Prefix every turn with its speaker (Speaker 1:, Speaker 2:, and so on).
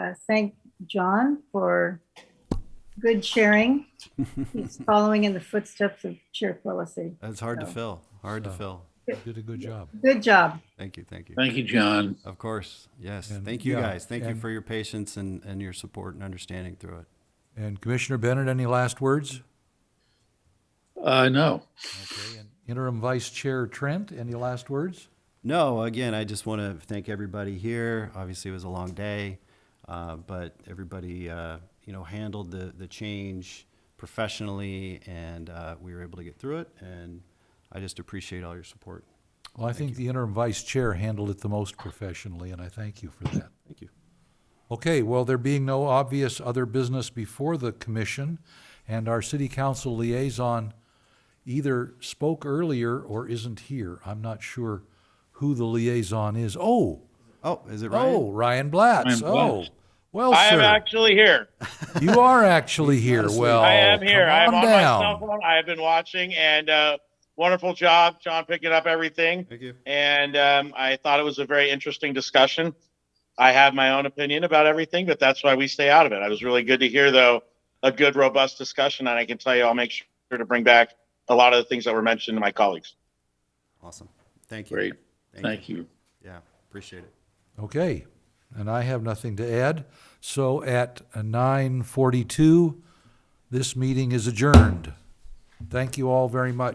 Speaker 1: uh, thank John for good sharing. He's following in the footsteps of Chair Quillisi.
Speaker 2: That's hard to
Speaker 1: So-
Speaker 2: fill. Hard to
Speaker 3: So-
Speaker 2: fill.
Speaker 3: You Did a good job.
Speaker 1: Good job.
Speaker 2: Thank you. Thank you.
Speaker 4: Thank you, John.
Speaker 2: Of course. Yes.
Speaker 3: And-
Speaker 2: Thank you
Speaker 3: yeah,
Speaker 2: guys. Thank you
Speaker 3: and-
Speaker 2: for your patience and, and your support and understanding through it.
Speaker 3: And Commissioner Bennett, any last words?
Speaker 4: Uh, no,
Speaker 3: Okay. and Interim Vice Chair Trent, any last words?
Speaker 2: No, again, I just want to thank everybody here. Obviously, it was a long day, uh, but everybody, uh, you know, handled the, the change professionally and uh, we were able to get through it. And I just appreciate all your support.
Speaker 3: Well, I think the interim vice chair handled it the most professionally, and I thank you for that.
Speaker 2: Thank you.
Speaker 3: Okay, well, there being no obvious other business before the commission, and our city council liaison either spoke earlier or isn't here. I'm not sure who the liaison is. Oh,
Speaker 2: Oh, is it right?
Speaker 3: oh, Ryan Blatts.
Speaker 4: Ryan
Speaker 3: Oh,
Speaker 4: Blatts.
Speaker 3: well,
Speaker 5: I am
Speaker 3: sir,
Speaker 5: actually here.
Speaker 3: you are actually here.
Speaker 2: asleep.
Speaker 3: Well,
Speaker 5: I am here. I am
Speaker 3: calm
Speaker 5: on my cell
Speaker 3: down.
Speaker 5: phone. I have been watching and uh, wonderful job, John, picking up everything.
Speaker 2: Thank you.
Speaker 5: And um, I thought it was a very interesting discussion. I have my own opinion about everything, but that's why we stay out of it. I was really good to hear, though, a good, robust discussion. And I can tell you, I'll make sure to bring back a lot of the things that were mentioned to my colleagues.
Speaker 2: Awesome. Thank you.
Speaker 4: great. Thank you.
Speaker 2: Yeah, appreciate it.
Speaker 3: Okay, and I have nothing to add. So at nine forty-two, this meeting is adjourned. Thank you all very much.